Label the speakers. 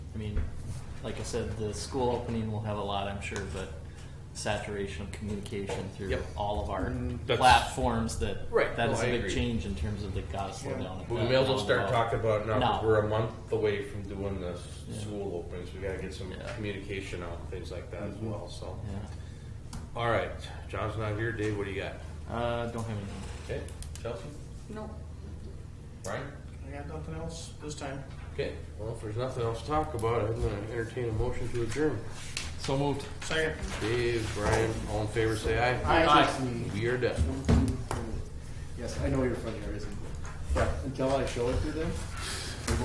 Speaker 1: like I said, the school opening will have a lot, I'm sure, but saturation of communication through
Speaker 2: Yep.
Speaker 1: all of our
Speaker 2: Mm, that's-
Speaker 1: platforms that
Speaker 2: Right,
Speaker 1: that
Speaker 2: no,
Speaker 1: is a
Speaker 2: I
Speaker 1: big
Speaker 2: agree.
Speaker 1: change in terms of the gotta slow down. at
Speaker 3: But we
Speaker 1: that
Speaker 3: may as well
Speaker 1: down
Speaker 3: start
Speaker 1: low.
Speaker 3: talking about it now, because
Speaker 1: Um, No.
Speaker 3: we're a month away from doing the s-
Speaker 1: Yeah.
Speaker 3: school openings, we gotta get some
Speaker 1: Yeah. Mm-hmm.
Speaker 3: communication out, and things like that as well, so.
Speaker 1: Yeah.
Speaker 3: All right, John's not here, Dave, what do you got?
Speaker 1: Uh, don't have anything.
Speaker 3: Okay, Chelsea?
Speaker 4: No.
Speaker 3: Brian?
Speaker 2: I got nothing else this time.
Speaker 3: Okay, well, if there's nothing else to talk about, I'm gonna entertain a motion to adjourn.
Speaker 1: So moved.
Speaker 2: Second.
Speaker 3: Dave, Brian, all in favor, say aye.
Speaker 5: I just need
Speaker 3: We are done.
Speaker 5: one, two, three. Yes, I know your front yard isn't good, but until I show it to them,